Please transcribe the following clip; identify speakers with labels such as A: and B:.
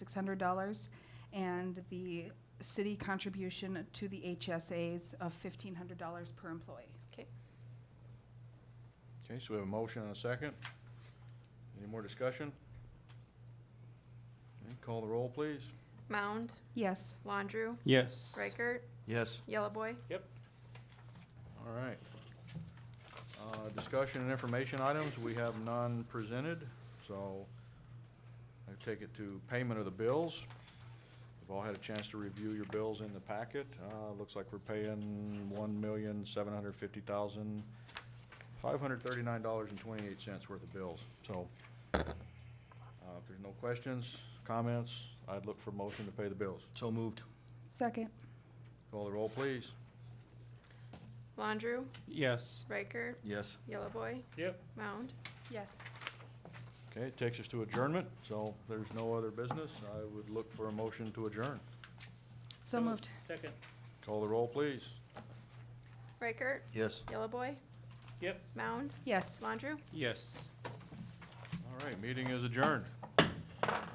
A: six hundred dollars, and the city contribution to the HSAs of fifteen hundred dollars per employee.
B: Okay.
C: Okay, so we have a motion and a second. Any more discussion? Okay, Call the roll, please.
B: Mound,
A: Yes.
B: Laundrew,
D: Yes.
B: Reichert,
C: Yes.
B: Yellow Boy.
C: All right. Uh, Discussion and information items, we have none presented, so I take it to payment of the bills. We've all had a chance to review your bills in the packet. Uh, Looks like we're paying one million, seven hundred fifty thousand, five hundred thirty-nine dollars and twenty-eight cents worth of bills. So uh, if there's no questions, comments, I'd look for motion to pay the bills. So moved.
A: Second.
C: Call the roll, please.
B: Laundrew,
D: Yes.
B: Reichert,
C: Yes.
B: Yellow Boy.
D: Yep.
B: Mound.
A: Yes.
C: Okay, it takes us to adjournment, so there's no other business. I would look for a motion to adjourn.
A: So moved.
D: Second.
C: Call the roll, please.
B: Reichert,
C: Yes.
B: Yellow Boy.
D: Yep.
B: Mound.
A: Yes.
B: Laundrew.
D: Yes.
C: All right, meeting is adjourned.